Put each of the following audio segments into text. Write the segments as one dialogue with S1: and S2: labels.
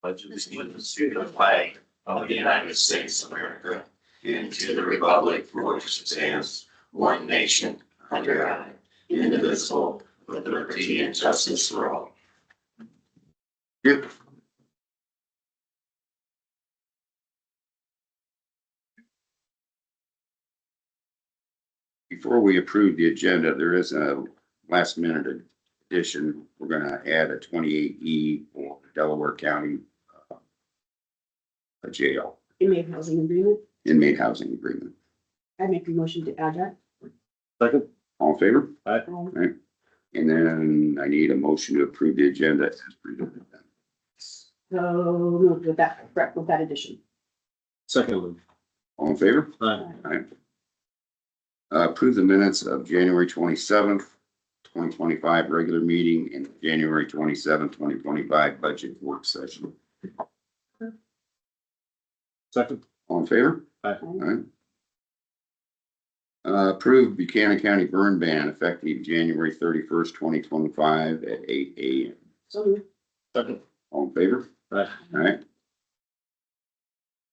S1: pledge allegiance to the flag of the United States of America and to the republic for which it stands, one nation, under God, indivisible, with liberty and justice for all. Yep.
S2: Before we approve the agenda, there is a last minute addition. We're gonna add a twenty-eight E for Delaware County uh, a jail,
S3: inmate housing agreement.
S2: inmate housing agreement.
S3: I make a motion to add that.
S4: Second.
S2: All in favor?
S3: Um,
S2: And then I need a motion to approve the agenda. as presented.
S3: So moved with that, correct, with that addition.
S4: Second.
S2: All in favor?
S4: Aye.
S2: Uh, Approve the minutes of January twenty-seventh, twenty twenty-five, regular meeting and January twenty-seventh, twenty twenty-five, budget work session.
S4: Second.
S2: All in favor?
S4: Aye.
S2: Alright. Uh, approve Buchanan County burn ban effective January thirty-first, twenty twenty-five at eight AM.
S3: So moved.
S4: Second.
S2: All in favor?
S4: Aye.
S2: Alright.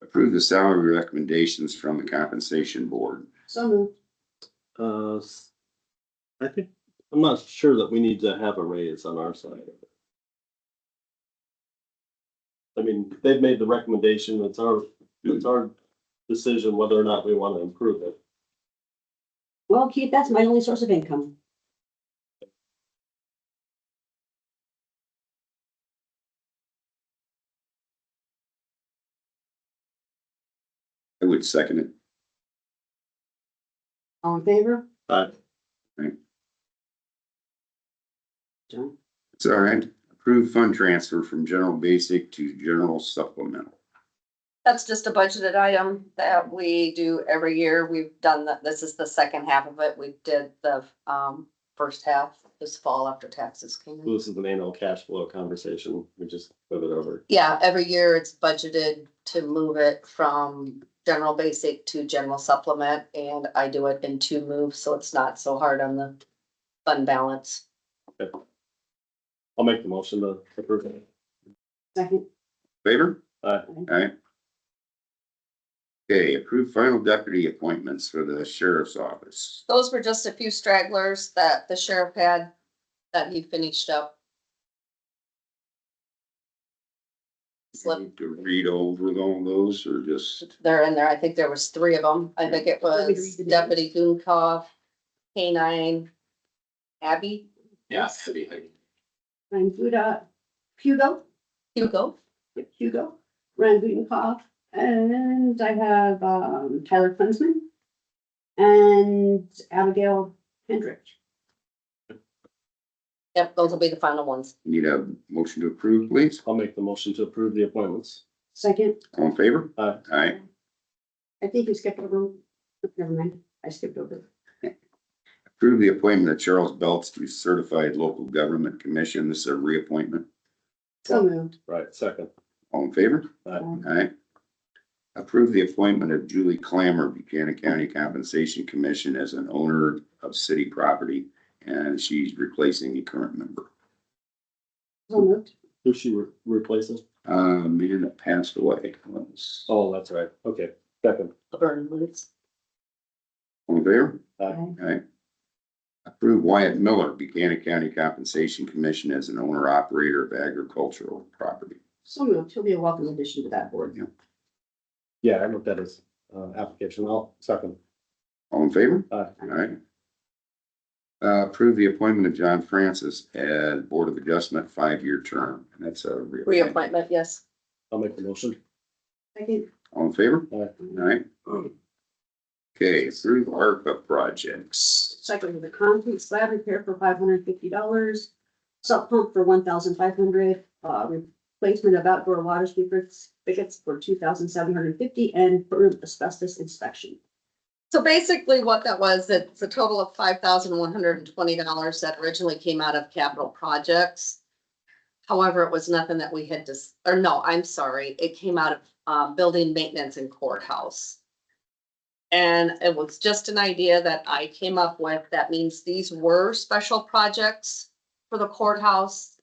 S2: Approve the salary recommendations from the compensation board.
S3: So moved.
S4: Uh, s- I think, I'm not sure that we need to have a raise on our side. of it. I mean, they've made the recommendation, it's our, it's our decision whether or not we want to improve it.
S3: Well, Keith, that's my only source of income.
S2: I would second it.
S3: All in favor?
S4: Aye.
S3: John?
S2: It's all right. Approved fund transfer from general basic to general supplemental.
S5: That's just a budgeted item that we do every year. We've done that. This is the second half of it. We did the um first half this fall after taxes came in.
S4: This is an annual cash flow conversation, we just move it over.
S5: Yeah, every year it's budgeted to move it from general basic to general supplement and I do it in two moves, so it's not so hard on the fund balance.
S4: I'll make the motion to approve it.
S3: Second,
S2: Favor?
S4: Aye.
S2: Aye. Okay, approved final deputy appointments for the sheriff's office.
S5: Those were just a few stragglers that the sheriff had that he finished up. Slip.
S2: Need To read over all those or just,
S5: They're in there. I think there was three of them. I think it
S3: Want me to
S5: was
S3: read the
S5: Deputy Gunkov, K nine, Abby,
S1: Yeah.
S3: Ryan Buda, uh, Hugo,
S5: Hugo.
S3: Yep, Hugo, Ryan Budenkoff, and I have um, Tyler Klinsman and Abigail Hendrick.
S5: Yep, those will be the final ones.
S2: need a motion to approve, please?
S4: I'll make the motion to approve the appointments.
S3: Second,
S2: All in favor?
S4: Aye.
S2: Aye.
S3: I think you skipped over, oh, never mind, I skipped over.
S2: Approve the appointment of Charles Belts to certified local government commission. This is a reappointment.
S3: So moved.
S4: Right, second.
S2: All in favor?
S4: Aye.
S2: Alright. Approve the appointment of Julie Clammer, Buchanan County Compensation Commission as an owner of city property, and she's replacing the current member.
S3: So moved.
S4: Who's she re- replacing?
S2: Um, Amanda passed away. Let's-
S4: Oh, that's right, okay, second.
S5: Burn loose.
S2: All in favor?
S3: Aye.
S2: Alright. Approve Wyatt Miller, Buchanan County Compensation Commission as an owner operator of agricultural property.
S3: So moved. He'll be a welcome addition to that board.
S4: Yeah, I looked at his uh application, I'll second.
S2: All in favor?
S4: Aye.
S2: Alright. Uh, approve the appointment of John Francis as Board of Adjustment, five-year term, and that's a reappointment.
S5: Reappointment, yes.
S4: I'll make the motion.
S3: Second,
S2: All in favor?
S3: um,
S2: Alright. Okay, approve ARPA projects.
S3: second with the concrete slab repair for five hundred fifty dollars, salt pump for one thousand five hundred, uh, replacement of outdoor water speakers, spigots for two thousand seven hundred fifty, and for asbestos inspection.
S5: So basically what that was, it's a total of five thousand one hundred and twenty dollars that originally came out of capital projects. However, it was nothing that we had just, or no, I'm sorry, it came out of uh building maintenance and courthouse. And it was just an idea that I came up with. That means these were special projects for the courthouse.